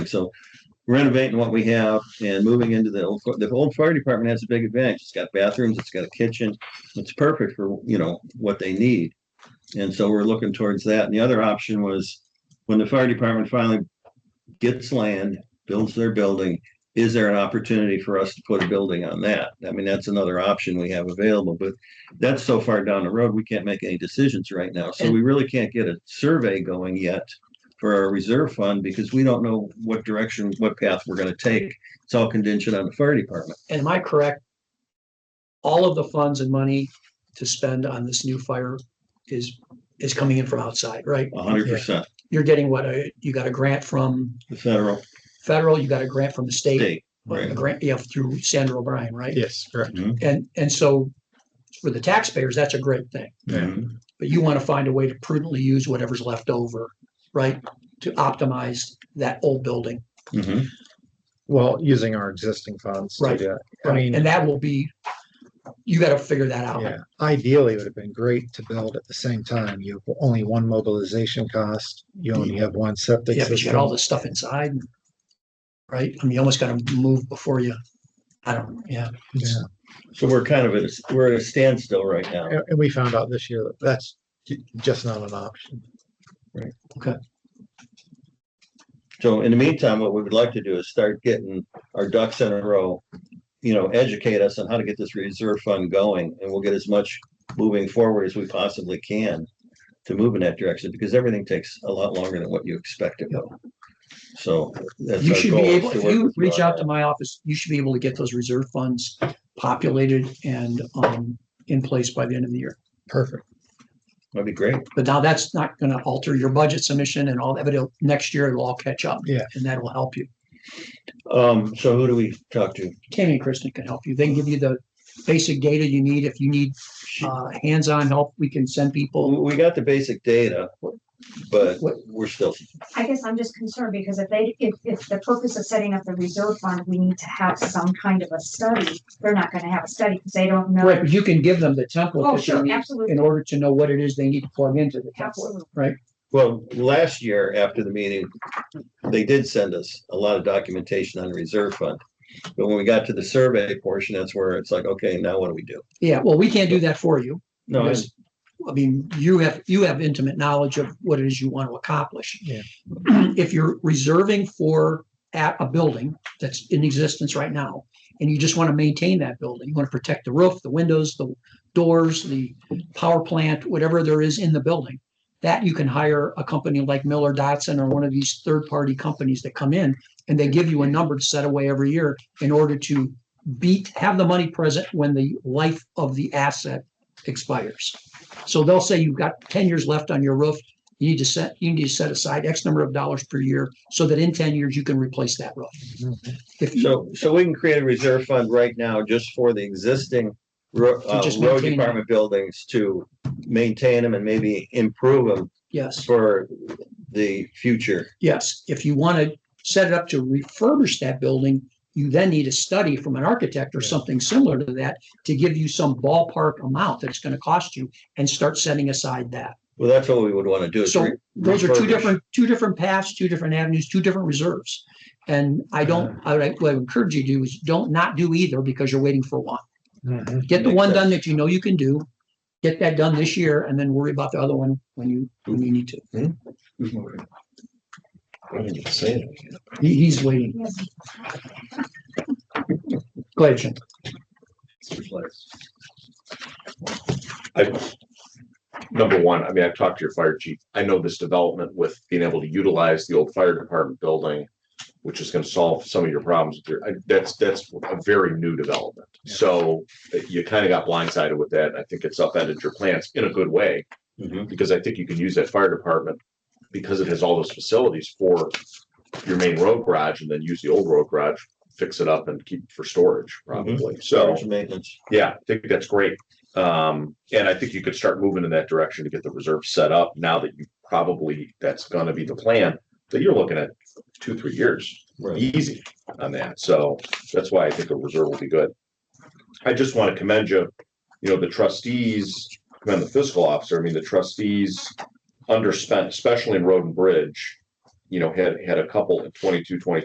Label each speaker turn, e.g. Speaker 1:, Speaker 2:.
Speaker 1: So renovating what we have and moving into the old, the old fire department has a big advantage. It's got bathrooms, it's got a kitchen. It's perfect for, you know, what they need. And so we're looking towards that. And the other option was when the fire department finally gets land, builds their building, is there an opportunity for us to put a building on that? I mean, that's another option we have available, but that's so far down the road, we can't make any decisions right now. So we really can't get a survey going yet for our reserve fund because we don't know what direction, what path we're gonna take. It's all contingent on the fire department.
Speaker 2: And am I correct? All of the funds and money to spend on this new fire is, is coming in from outside, right?
Speaker 1: hundred percent,
Speaker 2: You're getting what, uh, you got a grant from
Speaker 1: the federal
Speaker 2: federal, you got a grant from the state,
Speaker 1: state.
Speaker 2: a
Speaker 1: right.
Speaker 2: grant, yeah, through Sandra O'Brien, right?
Speaker 3: Yes, correct.
Speaker 2: And, and so for the taxpayers, that's a great thing,
Speaker 3: Mm-hmm.
Speaker 1: Mhm.
Speaker 2: but you want to find a way to prudently use whatever's left over, right? To optimize that old building,
Speaker 1: Mhm.
Speaker 3: Well, using our existing funds. to
Speaker 2: Right,
Speaker 3: do it. I
Speaker 2: right?
Speaker 3: mean,
Speaker 2: And that will be, you got to figure that out.
Speaker 3: yeah, ideally, it would have been great to build at the same time. You have only one mobilization cost. You only have one septic
Speaker 2: Yeah, but you got all
Speaker 3: system.
Speaker 2: this stuff inside. Right? I mean, you almost gotta move before you, I don't, yeah.
Speaker 3: Yeah.
Speaker 1: So we're kind of at, a- we're at a standstill right now.
Speaker 3: And, and we found out this year that that's ju- just not an option.
Speaker 1: So in the meantime, what we would like to do is start getting our ducks in a row. You know, educate us on how to get this reserve fund going and we'll get as much moving forward as we possibly can. To move in that direction because everything takes a lot longer than what you expect it will. So. that's
Speaker 2: You
Speaker 1: our
Speaker 2: should be
Speaker 1: goal, is
Speaker 2: able,
Speaker 1: to
Speaker 2: if
Speaker 1: work
Speaker 2: you
Speaker 1: with
Speaker 2: reach
Speaker 1: on
Speaker 2: out to my office, you should be able to get those reserve funds populated and um in place by the end of the year.
Speaker 3: Perfect.
Speaker 1: that. That'd be great.
Speaker 2: But now that's not gonna alter your budget submission and all that, but it'll, next year it'll all catch up.
Speaker 3: Yeah.
Speaker 2: And that'll help you.
Speaker 1: Um, so who do we talk to?
Speaker 2: Tammy and Kristen can help you. They can give you the basic data you need. If you need uh hands-on help, we can send people.
Speaker 1: We, we got the basic data, but
Speaker 2: What-
Speaker 1: we're still,
Speaker 4: I guess I'm just concerned because if they, if, if the purpose of setting up the reserve fund, we need to have some kind of a study. They're not gonna have a study because they don't know.
Speaker 2: Right, but you can give them the template
Speaker 4: Oh,
Speaker 2: that you
Speaker 4: sure,
Speaker 2: need
Speaker 4: absolutely,
Speaker 2: in order to know what it is they need to plug into the template,
Speaker 4: absolutely.
Speaker 2: right?
Speaker 1: well, last year after the meeting, they did send us a lot of documentation on the reserve fund. But when we got to the survey portion, that's where it's like, okay, now what do we do?
Speaker 2: Yeah, well, we can't do that for you.
Speaker 1: No, I-
Speaker 2: because, I mean, you have, you have intimate knowledge of what it is you want to accomplish.
Speaker 3: Yeah.
Speaker 2: If you're reserving for at a building that's in existence right now, and you just want to maintain that building, you want to protect the roof, the windows, the doors, the power plant, whatever there is in the building. That you can hire a company like Miller Dotson or one of these third-party companies that come in and they give you a number to set away every year in order to beat, have the money present when the life of the asset expires. So they'll say you've got ten years left on your roof. You need to set, you need to set aside X number of dollars per year so that in ten years you can replace that roof.
Speaker 3: Mm-hmm.
Speaker 2: If you,
Speaker 1: so, so we can create a reserve fund right now just for the existing ro- uh,
Speaker 2: just
Speaker 1: road
Speaker 2: maintain them.
Speaker 1: department buildings to maintain them and maybe improve them
Speaker 2: yes,
Speaker 1: for the future.
Speaker 2: yes, if you want to set it up to refurbish that building, you then need a study from an architect or
Speaker 3: Yeah.
Speaker 2: something similar to that to give you some ballpark amount that it's going to cost you and start setting aside that.
Speaker 1: Well, that's what we would want to do. is
Speaker 2: So
Speaker 1: re-
Speaker 2: those are two
Speaker 1: refurbish.
Speaker 2: different, two different paths, two different avenues, two different reserves. And I don't, I would, what I would encourage you to do is don't not do either because you're waiting for one.
Speaker 3: Mhm.
Speaker 2: Get the
Speaker 1: Makes
Speaker 2: one done that you know you can do. Get that done this year and then worry about the other one when you, when you need to. He, he's waiting.
Speaker 4: Yes.
Speaker 2: Go ahead, Jim.
Speaker 5: number one, I mean, I've talked to your fire chief. I know this development with being able to utilize the old fire department building, which is gonna solve some of your problems. with your- I- That's, that's a very new development.
Speaker 3: Yeah.
Speaker 5: So uh, you kind of got blindsided with that. and I think it's upended your plans in a good way,
Speaker 1: Mhm.
Speaker 5: because I think you can use that fire department because it has all those facilities for your main road garage and then use the old road garage, fix it up and keep it for storage probably. So.
Speaker 1: Storage Maintenance.
Speaker 5: Yeah, I think that's great. Um, and I think you could start moving in that direction to get the reserve set up now that you probably, that's gonna be the plan. That you're looking at two, three years,
Speaker 1: Right.
Speaker 5: easy on that. So that's why I think a reserve will be good. I just want to commend you, you know, the trustees, commend the fiscal officer. I mean, the trustees underspent, especially in road and bridge. You know, had, had a couple in 22, 23.